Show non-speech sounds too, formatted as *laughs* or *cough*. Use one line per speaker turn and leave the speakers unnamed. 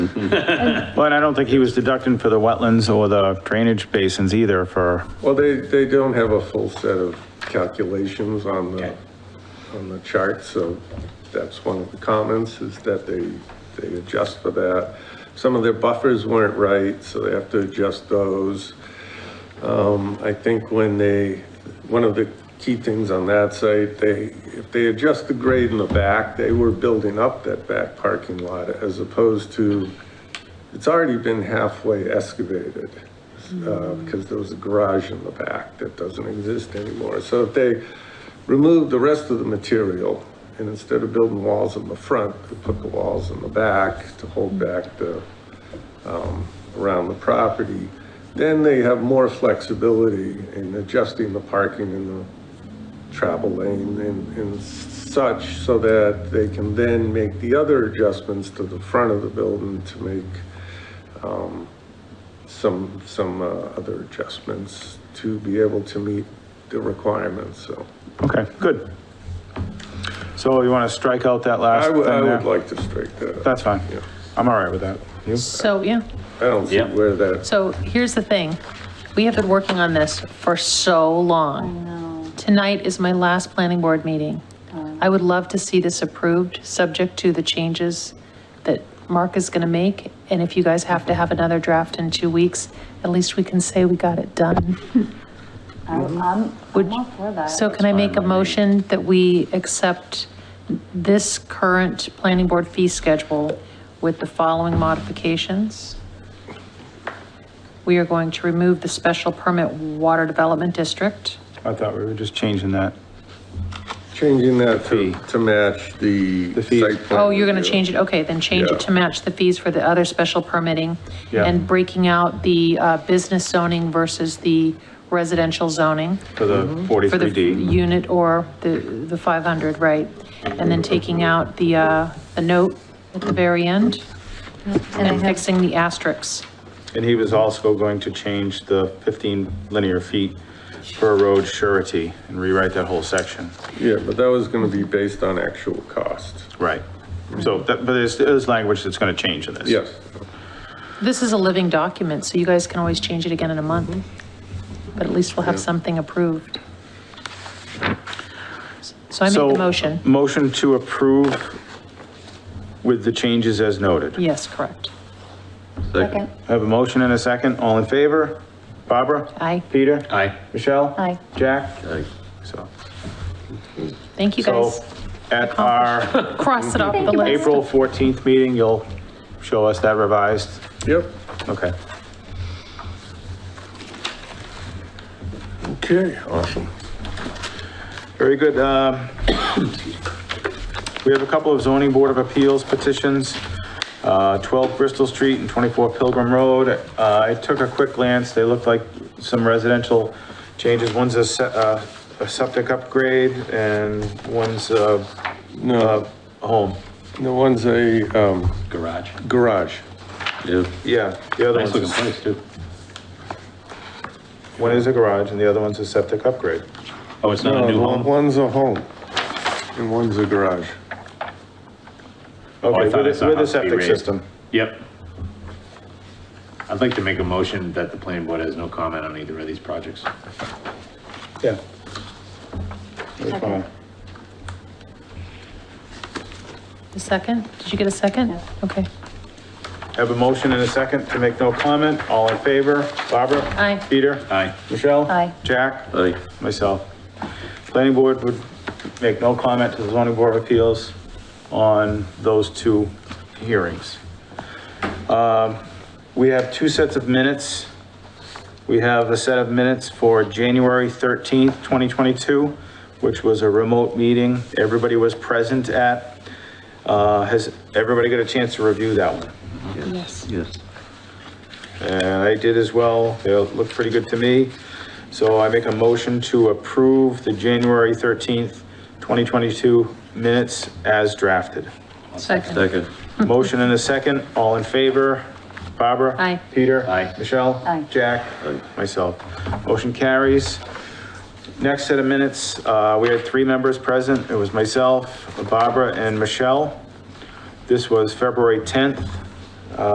But I don't think he was deducting for the wetlands or the drainage basins either for,
Well, they, they don't have a full set of calculations on the,
Okay.
on the chart, so that's one of the comments, is that they, they adjust for that. Some of their buffers weren't right, so they have to adjust those. Um, I think when they, one of the key things on that site, they, if they adjust the grade in the back, they were building up that back parking lot as opposed to, it's already been halfway excavated, uh, because there was a garage in the back that doesn't exist anymore. So if they removed the rest of the material, and instead of building walls in the front, they put the walls in the back to hold back the, um, around the property, then they have more flexibility in adjusting the parking and the travel lane and, and such, so that they can then make the other adjustments to the front of the building to make, um, some, some, uh, other adjustments to be able to meet the requirements, so.
okay, good. So you want to strike out that last
I
thing
would, I
there?
would like to strike that.
That's fine.
Yeah.
I'm all right with that. You?
So, yeah,
I don't see
Yeah.
where that,
so here's the thing. We have been working on this for so long. Tonight is my last planning board meeting.
Oh.
I would love to see this approved, subject to the changes that Mark is going to make. And if you guys have to have another draft in two weeks, at least we can say we got it done.
*laughs* I'm, I'm
Would-
I'm all for that.
So can I make a
That's fine by me.
motion that we accept this current planning board fee schedule with the following modifications? We are going to remove the special permit water development district.
I thought we were just changing that.
changing that to, to match the
The fees.
site plan.
Oh, you're going to
review.
change it, okay, then change
Yeah.
it to match the fees for the other special permitting
Yeah.
and breaking out the uh, business zoning versus the residential zoning.
For the
Mm-hmm.
For the
43D.
unit or the, the 500, right? And then taking out the, uh, the note at the very end and fixing the asterisks.
And he was also going to change the 15 linear feet per road surety and rewrite that whole section.
Yeah, but that was gonna be based on actual cost.
Right. So,
Mm-hmm.
that- but there's, there's language that's going to change in this.
Yes.
This is a living document, so you guys can always change it again in a month.
Mm-hmm.
But at least we'll have something approved. So I make
So, um,
the motion.
Motion to approve with the changes as noted.
Yes, correct.
Second.
I have a motion and a second. All in favor? Barbara?
Aye.
Peter?
Aye.
Michelle?
Aye.
Jack? Aye. So,
Thank you,
so
guys.
at our
Cross it off the list.
April 14th meeting, you'll show us that revised.
Yep.
Okay.
Okay, awesome.
Very good. Um, We have a couple of zoning board of appeals petitions, uh, 12 Bristol Street and 24 Pilgrim Road. Uh, I took a quick glance, they look like some residential changes. One's a se- uh, a septic upgrade and one's a
No,
home.
the one's a, um,
Garage.
garage.
Yeah.
Yeah, the other
Nice looking
one's,
place too.
one is a garage and the other one's a septic upgrade.
Oh, it's not a
No,
new
one-
home?
Uh, One's a home and one's a garage.
I
Okay,
thought Oh, I
with
saw
a- with a
house be
septic
raised.
system.
Yep. I'd like to make a motion that the planning board has no comment on either of these projects.
Yeah. That's fine.
The second? Did you get a second?
Yeah.
Okay.
Have a motion and a second to make no comment. All in favor? Barbara?
Aye.
Peter?
Aye.
Michelle?
Aye.
Jack?
Aye.
Myself. Planning board would make no comment to the zoning board of appeals on those two hearings. Um, We have two sets of minutes. We have a set of minutes for January 13th, 2022, which was a remote meeting. Everybody was present at. Uh, Has everybody got a chance to review that one?
Yes.
Yes.
And I did as well. They look pretty good to me. So I make a motion to approve the January 13th, 2022 minutes as drafted.
Second.
Motion and a second. All in favor? Barbara?
Aye.
Peter?
Aye.
Michelle?
Aye.
Jack? Myself. Motion carries. Next set of minutes, uh, we had three members present. It was myself, Barbara, and Michelle. This was February 10th.